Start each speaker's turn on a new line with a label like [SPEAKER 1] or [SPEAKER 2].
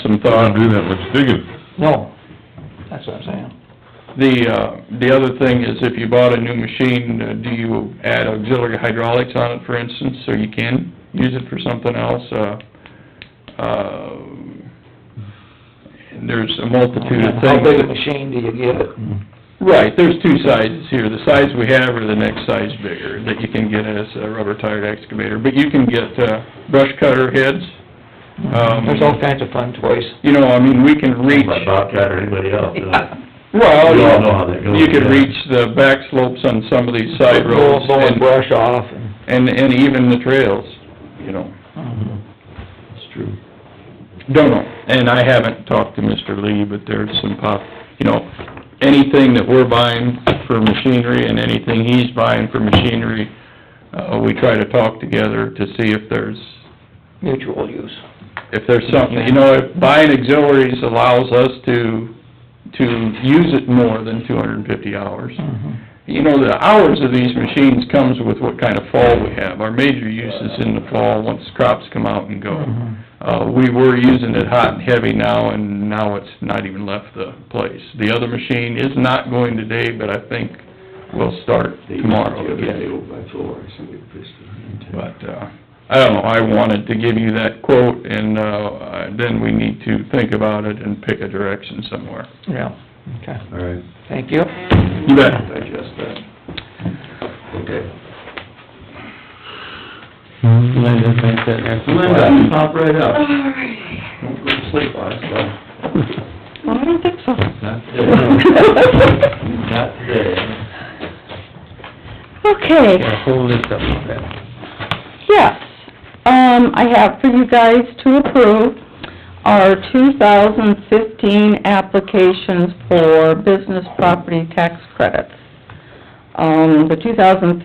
[SPEAKER 1] thought.
[SPEAKER 2] Don't do that much digging.
[SPEAKER 1] No, that's what I'm saying. The, uh, the other thing is if you bought a new machine, uh, do you add auxiliary hydraulics on it, for instance, so you can use it for something else? Uh, uh, there's a multitude of things.
[SPEAKER 3] How big a machine do you get?
[SPEAKER 1] Right, there's two sizes here, the size we have or the next size bigger, that you can get as a rubber tired excavator, but you can get, uh, brush cutter heads. Um,
[SPEAKER 3] There's all kinds of fun toys.
[SPEAKER 1] You know, I mean, we can reach,
[SPEAKER 4] By Bobcat or anybody else, you know?
[SPEAKER 1] well,
[SPEAKER 4] We all know
[SPEAKER 1] you
[SPEAKER 4] how that goes.
[SPEAKER 1] you can
[SPEAKER 4] yeah.
[SPEAKER 1] reach the back slopes on some of these side roads
[SPEAKER 3] Blow- Blowing
[SPEAKER 1] and,
[SPEAKER 3] brush off and...
[SPEAKER 1] and, and even the trails, you know.
[SPEAKER 4] It's true.
[SPEAKER 1] Don't know, and I haven't talked to Mr. Lee, but there's some pop, you know, anything that we're buying for machinery and anything he's buying for machinery, uh, we try to talk together to see if there's,
[SPEAKER 3] Mutual use.
[SPEAKER 1] if there's something, you know, if buying auxiliaries allows us to, to use it more than two hundred and fifty hours. You know, the hours of these machines comes with what kind of fall we have. Our major use is in the fall, once crops come out and go.
[SPEAKER 4] Mm-hmm.
[SPEAKER 1] Uh, we were using it hot and heavy now, and now it's not even left the place. The other machine is not going today, but I think we'll start
[SPEAKER 4] They used
[SPEAKER 1] tomorrow
[SPEAKER 4] to do it
[SPEAKER 1] again.
[SPEAKER 4] by floor, somebody pushed it.
[SPEAKER 1] But, uh, I don't know, I wanted to give you that quote, and, uh, uh, then we need to think about it and pick a direction somewhere.
[SPEAKER 3] Yeah, okay.
[SPEAKER 4] All right,
[SPEAKER 3] Thank you.
[SPEAKER 1] You bet.
[SPEAKER 4] digest that. Okay.
[SPEAKER 2] Linda, thank
[SPEAKER 4] Linda, pop right up.
[SPEAKER 5] Alright.
[SPEAKER 4] Don't go to sleep on us, though.
[SPEAKER 5] Well, I don't think so.
[SPEAKER 4] Not today. Not today.
[SPEAKER 5] Okay,
[SPEAKER 2] hold this up a bit.
[SPEAKER 5] yes, um, I have for you guys to approve our two thousand fifteen applications for business property tax credits. Um, the two thousand